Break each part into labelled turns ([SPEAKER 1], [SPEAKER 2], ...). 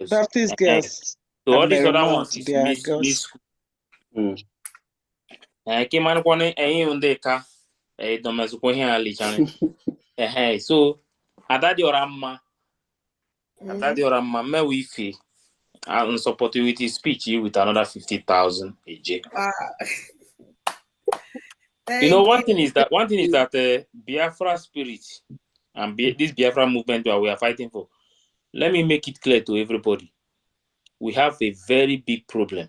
[SPEAKER 1] Yes.
[SPEAKER 2] Baptist
[SPEAKER 1] Eh,
[SPEAKER 2] girls.
[SPEAKER 1] So all these
[SPEAKER 2] Very
[SPEAKER 1] other
[SPEAKER 2] much,
[SPEAKER 1] ones is
[SPEAKER 2] they are
[SPEAKER 1] miss,
[SPEAKER 2] girls.
[SPEAKER 1] miss school. Eh, kí máa ń kọ́ ní ẹ̀yìn òun dé ka ìdọ̀mẹ̀sùkú hìn àlìjáre. Ẹ̀hẹ́n so àdáde ọ̀rá mma àdáde ọ̀rá mma mẹ́wàá ife and support you Ah, with his speech you with another fifty thousand eh, eje.
[SPEAKER 3] Wow.
[SPEAKER 1] You know
[SPEAKER 3] Thank
[SPEAKER 1] one thing is that one thing is that uh, Biafra spirit and Bi- this Biafra movement that we are fighting for. Let me make it clear to everybody. We have a very big problem.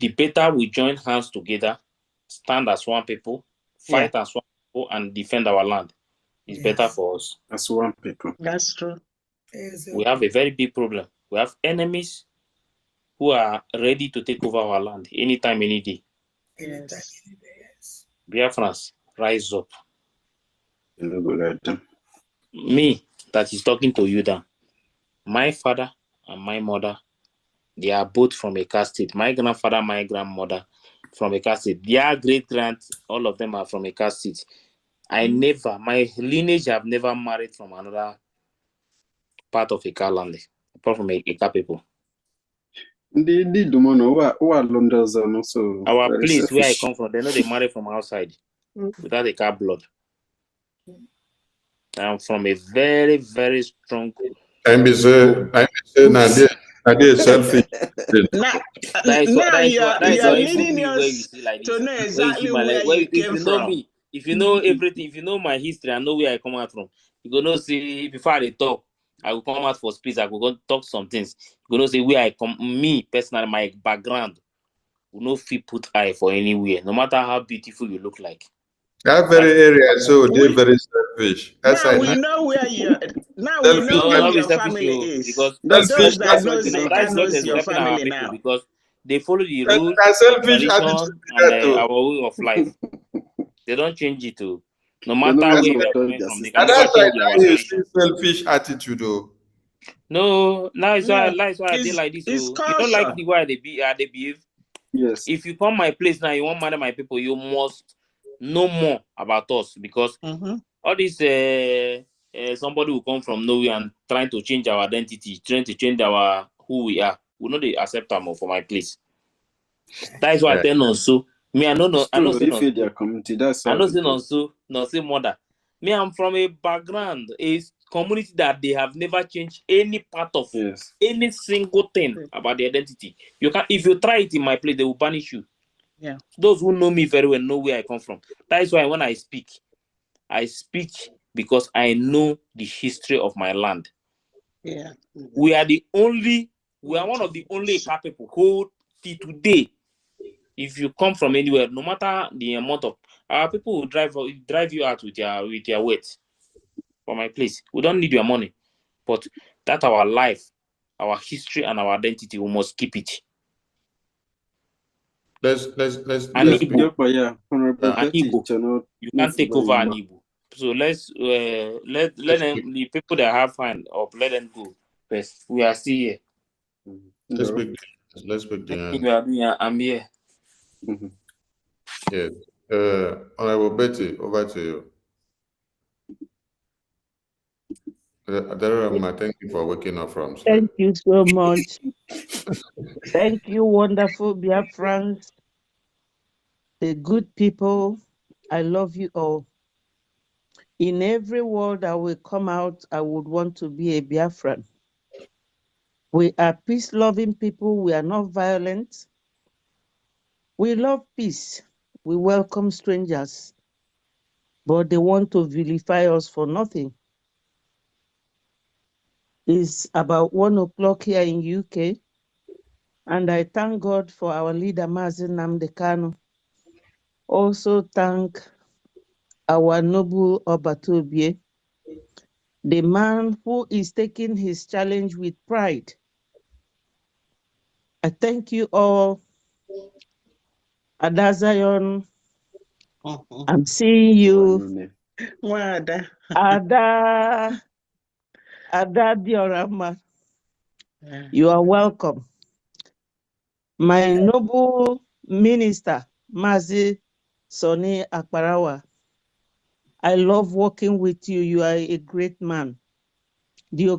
[SPEAKER 1] the better we join hands together, stand as one people, fight as one people, and defend our land. It's
[SPEAKER 3] Yes.
[SPEAKER 1] better for us.
[SPEAKER 4] That's one people.
[SPEAKER 2] That's true.
[SPEAKER 3] Yes,
[SPEAKER 1] We have a very big problem. We have enemies who are ready to take over our land anytime, any day.
[SPEAKER 3] anytime,
[SPEAKER 2] Yes.
[SPEAKER 3] anywhere, yes.
[SPEAKER 1] Biafrans, rise up.
[SPEAKER 4] You know, good at them.
[SPEAKER 1] Me that is talking to you, Dan. My father and my mother, they are both from a caste state. My grandfather, my grandmother, from a caste state. Their great grand, all of them are from a caste state. I
[SPEAKER 4] Mm.
[SPEAKER 1] never, my lineage have never married from another part of Ika land, apart from I- Ika people.
[SPEAKER 4] They did the money. What what London's and also
[SPEAKER 1] Our
[SPEAKER 4] very
[SPEAKER 1] place where I
[SPEAKER 4] selfish.
[SPEAKER 1] come from, they know they marry from outside
[SPEAKER 2] Mm.
[SPEAKER 1] without Ika blood.
[SPEAKER 4] Mm.
[SPEAKER 1] I'm from a very, very strong
[SPEAKER 5] I'm be say, I'm be say, na there, na there selfish.
[SPEAKER 2] Now,
[SPEAKER 1] That is what-
[SPEAKER 2] now
[SPEAKER 1] that is
[SPEAKER 2] you
[SPEAKER 1] what-
[SPEAKER 2] are,
[SPEAKER 1] that
[SPEAKER 2] you
[SPEAKER 1] is
[SPEAKER 2] are
[SPEAKER 1] what if you
[SPEAKER 2] leading
[SPEAKER 1] see where you
[SPEAKER 2] us
[SPEAKER 1] see like
[SPEAKER 2] to
[SPEAKER 1] this,
[SPEAKER 2] know
[SPEAKER 1] where you see
[SPEAKER 2] exactly
[SPEAKER 1] my
[SPEAKER 2] where
[SPEAKER 1] leg- where
[SPEAKER 2] you
[SPEAKER 1] you- if
[SPEAKER 2] came
[SPEAKER 1] you know
[SPEAKER 2] from. Mm-hmm.
[SPEAKER 1] me, if you know everything, if you know my history, I know where I come out from. You gonna see before I talk, I will come out for space. I will go talk some things. You gonna see where I come, me personally, my background. You no fit put eye for anywhere, no matter how beautiful you look like.
[SPEAKER 5] That very area, so they very selfish. That's
[SPEAKER 2] Now
[SPEAKER 5] why.
[SPEAKER 2] we
[SPEAKER 5] na-
[SPEAKER 2] know where you now we
[SPEAKER 5] Selfish,
[SPEAKER 2] know
[SPEAKER 1] No,
[SPEAKER 2] where
[SPEAKER 1] not
[SPEAKER 5] selfish.
[SPEAKER 2] your
[SPEAKER 1] be selfish,
[SPEAKER 2] family
[SPEAKER 1] oh,
[SPEAKER 2] is.
[SPEAKER 1] because
[SPEAKER 2] For
[SPEAKER 5] That's
[SPEAKER 2] those
[SPEAKER 5] fish,
[SPEAKER 2] that
[SPEAKER 5] that's
[SPEAKER 2] knows
[SPEAKER 1] you know
[SPEAKER 2] they
[SPEAKER 1] that
[SPEAKER 2] can
[SPEAKER 1] is not
[SPEAKER 2] knows your
[SPEAKER 1] respecting our
[SPEAKER 2] family
[SPEAKER 1] people
[SPEAKER 2] now.
[SPEAKER 1] because they follow the
[SPEAKER 5] That,
[SPEAKER 1] rule,
[SPEAKER 5] that selfish
[SPEAKER 1] tradition,
[SPEAKER 5] attitude
[SPEAKER 1] and
[SPEAKER 5] that
[SPEAKER 1] uh,
[SPEAKER 5] too.
[SPEAKER 1] our way of life. they don't change it to no
[SPEAKER 4] no
[SPEAKER 1] matter
[SPEAKER 4] be
[SPEAKER 1] where
[SPEAKER 4] so
[SPEAKER 1] we are coming
[SPEAKER 4] dodge their
[SPEAKER 1] from, they
[SPEAKER 4] system.
[SPEAKER 1] can
[SPEAKER 5] And
[SPEAKER 1] never
[SPEAKER 5] that's why
[SPEAKER 1] change our
[SPEAKER 5] now you see
[SPEAKER 1] tradition.
[SPEAKER 5] selfish attitude oh.
[SPEAKER 1] No, now it's why
[SPEAKER 2] No,
[SPEAKER 1] now it's why I did
[SPEAKER 2] it's-
[SPEAKER 1] like this.
[SPEAKER 2] it's
[SPEAKER 1] oh. You don't like
[SPEAKER 2] culture.
[SPEAKER 1] the way they be how they behave.
[SPEAKER 4] Yes.
[SPEAKER 1] If you come my place now, you want matter my people, you must know more about us because
[SPEAKER 2] Mhm.
[SPEAKER 1] all this uh, uh somebody will come from nowhere and trying to change our identity, trying to change our who we are. We know they accept them for my place. That is why I
[SPEAKER 5] Yeah.
[SPEAKER 1] tell Nonso. Me, I know no,
[SPEAKER 4] It's
[SPEAKER 1] I know
[SPEAKER 4] true.
[SPEAKER 1] say
[SPEAKER 4] If
[SPEAKER 1] Nonso.
[SPEAKER 4] their community, that's
[SPEAKER 1] I
[SPEAKER 4] how
[SPEAKER 1] know
[SPEAKER 4] it
[SPEAKER 1] say
[SPEAKER 4] is.
[SPEAKER 1] Nonso, Nonso mother. Me, I'm from a background, a community that they have never changed any part of
[SPEAKER 4] Yes.
[SPEAKER 1] any single thing
[SPEAKER 2] Mm.
[SPEAKER 1] about the identity. You can if you try it in my place, they will punish you.
[SPEAKER 2] Yeah.
[SPEAKER 1] Those who know me very well know where I come from. That is why when I speak, I speak because I know the history of my land.
[SPEAKER 2] Yeah. Mhm.
[SPEAKER 1] We are the only, we are one of the only Ika people who till today if you come from anywhere, no matter the amount of our people will drive drive you out with their with their weight for my place. We don't need your money, but that our life, our history, and our identity, we must keep it.
[SPEAKER 5] Let's let's let's
[SPEAKER 1] And
[SPEAKER 5] let's
[SPEAKER 1] Igbo.
[SPEAKER 4] Yes.
[SPEAKER 5] be
[SPEAKER 4] Jokpa, yeah. Honorable
[SPEAKER 5] Yeah.
[SPEAKER 1] And
[SPEAKER 4] Betty,
[SPEAKER 1] Igbo.
[SPEAKER 4] channel.
[SPEAKER 1] You
[SPEAKER 4] Not
[SPEAKER 1] can't take over
[SPEAKER 4] very
[SPEAKER 1] an
[SPEAKER 4] much.
[SPEAKER 1] Igbo. So let's uh, let let them the people that have hand up, let them go first. We are still here.
[SPEAKER 5] let's be let's be the
[SPEAKER 1] If you are here, I'm here.
[SPEAKER 4] Mhm.
[SPEAKER 5] Yes. Uh, Honorable Betty, over to you. Uh, Adarama, thank you for waking up from sleep.
[SPEAKER 6] Thank you so much. Thank you, wonderful Biafrans, the good people. I love you all. In every world I will come out, I would want to be a Biafran. We are peace loving people. We are not violent. We love peace. We welcome strangers, but they want to vilify us for nothing. It's about one o'clock here in UK, and I thank God for our leader, Mazin Namdekano. Also thank our noble Obatobie, the man who is taking his challenge with pride. I thank you all, Adazion.
[SPEAKER 2] Mhm.
[SPEAKER 6] I'm seeing you,
[SPEAKER 4] One minute.
[SPEAKER 2] Nwada.
[SPEAKER 6] Ada, Ada Diorama.
[SPEAKER 2] Yeah.
[SPEAKER 6] You are welcome. My noble minister, Mazi Soni Akparawa. I love working with you. You are a great man. The